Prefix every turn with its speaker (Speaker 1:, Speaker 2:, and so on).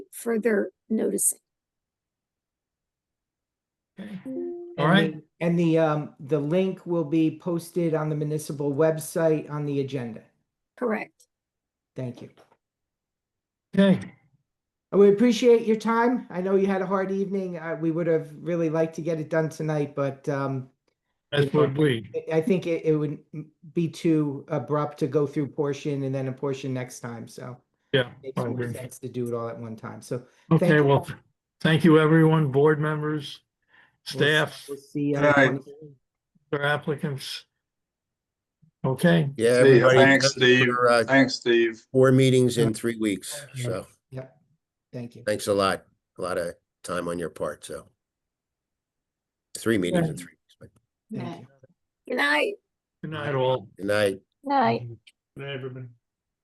Speaker 1: further noticing.
Speaker 2: All
Speaker 3: And
Speaker 2: right.
Speaker 3: the- And the, um, the link will be posted on the municipal website on the agenda.
Speaker 1: Correct.
Speaker 3: Thank you.
Speaker 2: Okay,
Speaker 3: Uh, We appreciate your time. I know you had a hard evening. Uh, we would have really liked to get it done tonight, but, um,
Speaker 2: as would we.
Speaker 3: I- I think it, it would m- be too abrupt to go through portion and then a portion next time, so.
Speaker 2: Yeah.
Speaker 3: Makes
Speaker 2: I
Speaker 3: more
Speaker 2: agree.
Speaker 3: sense to do it all at one time, so.
Speaker 2: Okay,
Speaker 3: you.
Speaker 2: well, thank you, everyone, board members,
Speaker 3: we'll s-
Speaker 2: staff,
Speaker 3: We'll see. uh, you on
Speaker 4: Good
Speaker 3: the
Speaker 4: night.
Speaker 3: 23rd.
Speaker 2: their applicants. Okay,
Speaker 5: Yeah,
Speaker 4: See ya.
Speaker 5: everybody.
Speaker 4: Thanks, Steve.
Speaker 5: for, uh,
Speaker 4: Thanks, Steve.
Speaker 5: Four meetings in three weeks, so
Speaker 3: Thank you.
Speaker 5: thanks a lot, a lot of time on your part, so. Three meetings in three weeks, but
Speaker 3: Thank you.
Speaker 1: Good night.
Speaker 2: good night all.
Speaker 5: good night.
Speaker 6: Night.
Speaker 2: Good night, everybody.